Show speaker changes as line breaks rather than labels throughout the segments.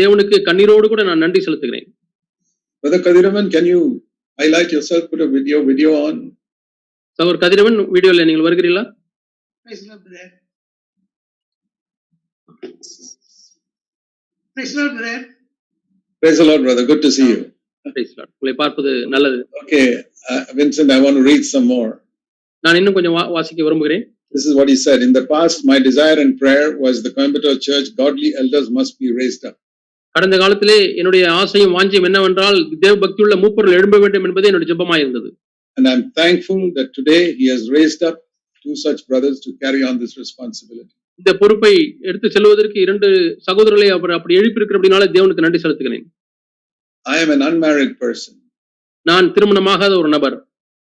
தேவனுக்கு கண்ணீரோடு கூட நான் நன்றி செலுத்துகிறேன்
Brother Kadiraman, can you highlight yourself, put a video video on?
சகோதர் கதிரவன் வீடியோல நீங்கள் வருகிறீர்களா
Praise the Lord, brother. Praise the Lord, brother.
Praise the Lord, brother. Good to see you.
Praise Lord. உங்களை பார்ப்பது நல்லது
Okay, uh, Vincent, I want to read some more.
நான் இன்னும் கொஞ்சம் வா- வாசிக்க விரும்புகிறேன்
This is what he said. In the past, my desire and prayer was the Coimbatore Church, godly elders must be raised up.
கடந்த காலத்திலே என்னுடைய ஆசையும் வாஞ்சியும் என்னவென்றால் தேவ பக்தியுள்ள மூப்பர்கள் எழும்ப வேண்டும் என்பது என்னுடைய ஜெபமாய் இருந்தது
And I'm thankful that today he has raised up two such brothers to carry on this responsibility.
இந்த பொறுப்பை எடுத்து செல்வதற்கு இரண்டு சகோதரர்களை அவர் அப்படி எழுப்பியிருக்கிற அப்படினால தேவனுக்கு நன்றி செலுத்துகிறேன்
I am an unmarried person.
நான் திருமணமாகாத ஒரு நபர்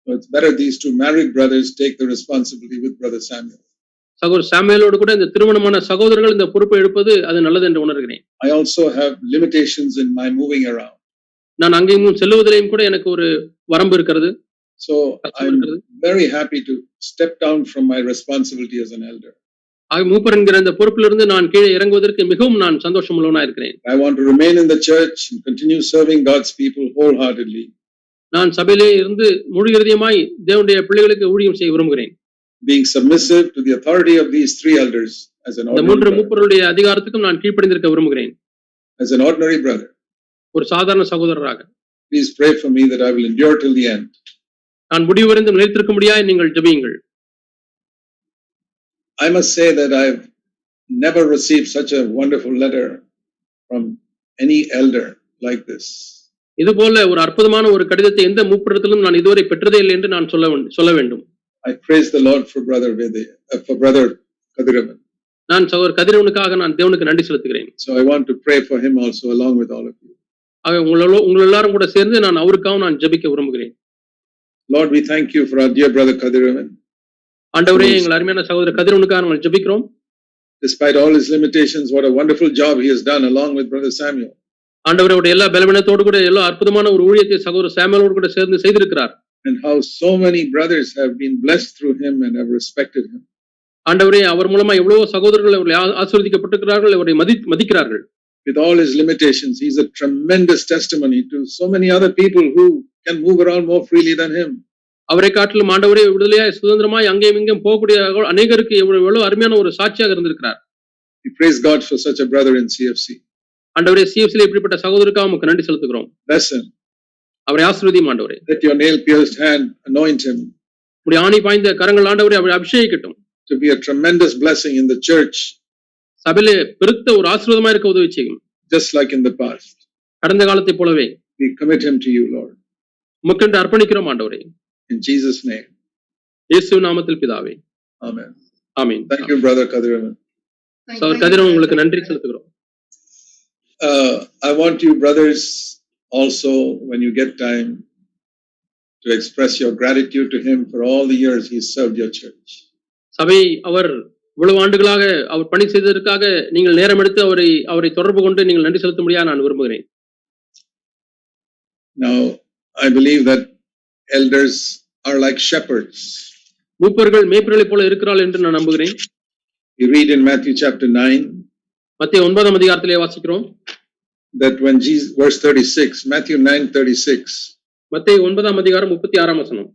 So it's better these two married brothers take the responsibility with Brother Samuel.
சகோதர் சாமுவேலோடு கூட இந்த திருமணமான சகோதரர்கள் இந்த பொறுப்பை எடுப்பது அது நல்லது என்று உணர்கிறேன்
I also have limitations in my moving around.
நான் அங்கேயும் செல்லுவதிலையும் கூட எனக்கு ஒரு வரம்பு இருக்கிறது
So
கஷ்டம்
I'm
இருக்கிறது
very happy to step down from my responsibility as an elder.
ஆக மூப்பர் என்கிற அந்த பொறுப்பிலிருந்து நான் கீழே இறங்குவதற்கு மிகவும் நான் சந்தோஷம் உள்ளவனா இருக்கிறேன்
I want to remain in the church and continue serving God's people wholeheartedly,
நான் சபையிலே இருந்து முழு இருதயமாய் தேவனுடைய பிள்ளைகளுக்கு ஊழியம் செய்ய விரும்புகிறேன்
being submissive to the authority of these three elders as an
இந்த மூன்று
ordinary brother.
மூப்பருடைய அதிகாரத்துக்கும் நான் கீழ்ப்படிந்திருக்க விரும்புகிறேன்
As an ordinary brother.
ஒரு சாதாரண சகோதரராக
Please pray for me that I will endure till the end.
நான் முடிவடைந்து நிலைத்திருக்க முடியாது நீங்கள் ஜெபியுங்கள்
I must say that I've never received such a wonderful letter from any elder like this.
இது போல ஒரு அற்புதமான ஒரு கடிதத்தை எந்த மூப்பிடத்திலும் நான் இதுவரை பெற்றதே இல்லை என்று நான் சொல்ல வேண்டும் சொல்ல வேண்டும்
I praise the Lord for brother Vedaya, uh, for brother Kadiravan.
நான் சகோதர் கதிரவனுக்காக நான் தேவனுக்கு நன்றி செலுத்துகிறேன்
So I want to pray for him also along with all of you.
ஆக உங்களோ உங்கள் எல்லாரும் கூட சேர்ந்து நான் அவருக்காக நான் ஜெபிக்க விரும்புகிறேன்
Lord, we thank you for our dear brother Kadiravan.
ஆண்டவரே எங்கள் அருமையான சகோதரர் கதிரவனுக்காக நாங்கள் ஜெபிக்கிறோம்
Despite all his limitations, what a wonderful job he has done along with brother Samuel.
ஆண்டவரோட எல்லா பலவீனத்தோடு கூட எல்லா அற்புதமான ஒரு ஊழியத்தை சகோதரர் சாமுவேலோடு கூட சேர்ந்து செய்திருக்கிறார்
And how so many brothers have been blessed through him and have respected him.
ஆண்டவரே அவர் மூலமா எவ்வளவோ சகோதரர்கள் அவர்களை ஆ- ஆசீர்வதிக்கப்பட்டிருக்கிறார்கள் அவரை மதி மதிக்கிறார்கள்
With all his limitations, he's a tremendous testimony to so many other people who can move around more freely than him.
அவரை காட்டிலும் ஆண்டவரே விடுதலையாய் சுதந்திரமாய் அங்கேயும் இங்கேயும் போகக்கூடிய அநேகருக்கு எவ்வளவு எவ்வளவு அருமையான ஒரு சாட்சியாக இருந்திருக்கிறார்
We praise God for such a brother in CFC.
ஆண்டவரே சிஎஃப்சியில் இப்படிப்பட்ட சகோதரருக்காக உமக்கு நன்றி செலுத்துகிறோம்
Bless him.
அவரை ஆசீர்வதியும் ஆண்டவரே
Let your nail pierced hand anoint him
உடைய ஆணி பாய்ந்த கரங்கள் ஆண்டவரே அவரை அபிஷேகிக்கட்டும்
to be a tremendous blessing in the church,
சபையிலே பெருத்த ஒரு ஆசீர்வாதமா இருக்க உதவி செய்யும்
just like in the past.
கடந்த காலத்தைப் போலவே
We commit him to you, Lord.
உமக்கென்று அர்ப்பணிக்கிறோம் ஆண்டவரே
In Jesus' name.
இயேசு நாமத்தில் பிதாவே
Amen.
ஆமீன்
Thank you, Brother Kadiraman.
Thank
சகோதரர்
you,
கதிரவன்
brother.
உங்களுக்கு நன்றி செலுத்துகிறோம்
Uh, I want you, brothers, also, when you get time, to express your gratitude to him for all the years he served your church.
சபை அவர் இவ்வளவு ஆண்டுகளாக அவர் பணி செய்ததற்காக நீங்கள் நேரம் எடுத்து அவரை அவரை தொடர்பு கொண்டு நீங்கள் நன்றி செலுத்த முடியாது நான் விரும்புகிறேன்
Now, I believe that elders are like shepherds.
மூப்பர்கள் மேய்ப்பர்களைப் போல இருக்கிறாள் என்று நான் நம்புகிறேன்
We read in Matthew chapter 9
மத்திய ஒன்பதாம் அதிகாரத்திலே வாசிக்கிறோம்
that when Jesus, verse 36, Matthew 9 36,
மத்திய ஒன்பதாம் அதிகாரம் முப்பத்தி ஆறாம் வசனம்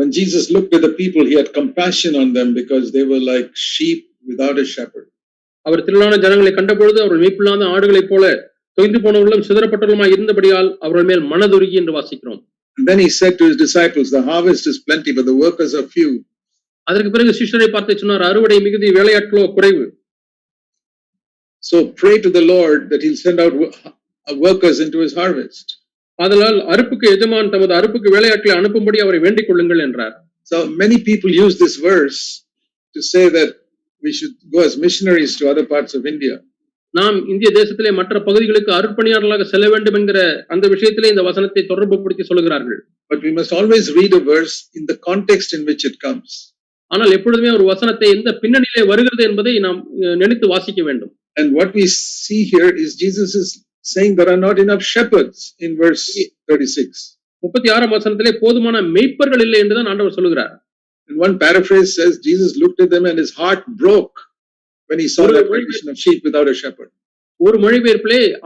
when Jesus looked at the people, he had compassion on them because they were like sheep without a shepherd.
அவர் திரளான ஜனங்களை கண்டபொழுது அவர்கள் மேய்ப்பில்லாத ஆடுகளைப் போல தொய்ந்து போனவர்களும் சிதறப்பட்டவர்களுமாய் இருந்தபடியால் அவர்கள் மேல் மனதுருகி என்று வாசிக்கிறோம்
And then he said to his disciples, The harvest is plenty, but the workers are few.
அதற்கு பிறகு சிஷ்யரை பார்த்து சொன்னார் அறுவடை மிகுதி வேலையாட்களோ குறைவு
So pray to the Lord that He'll send out wo- uh, workers into His harvest.
ஆதலால் அறுப்புக்கு எஜமான் தமது அறுப்புக்கு வேலையாட்களை அனுப்பும்படி அவரை வேண்டிக் கொள்ளுங்கள் என்றார்
So many people use this verse to say that we should go as missionaries to other parts of India.
நாம் இந்திய தேசத்திலே மற்ற பகுதிகளுக்கு அருட்பணியாளர்களாக செல்ல வேண்டும் என்கிற அந்த விஷயத்திலே இந்த வசனத்தை தொடர்புபடுத்தி சொல்கிறார்கள்
But we must always read a verse in the context in which it comes.
ஆனால் எப்பொழுதுமே ஒரு வசனத்தை எந்த பின்னணியிலே வருகிறது என்பதை நாம் அஹ், நினைத்து வாசிக்க வேண்டும்
And what we see here is Jesus is saying there are not enough shepherds in verse 36.
முப்பத்தி ஆறாம் வசனத்திலே போதுமான மெய்ப்பர்கள் இல்லை என்றுதான் ஆண்டவர் சொல்லுகிறார்
And one paraphrase says Jesus looked at them and his heart broke when he saw that condition of sheep without a shepherd.
ஒரு மொழிபெயர்ப்பிலே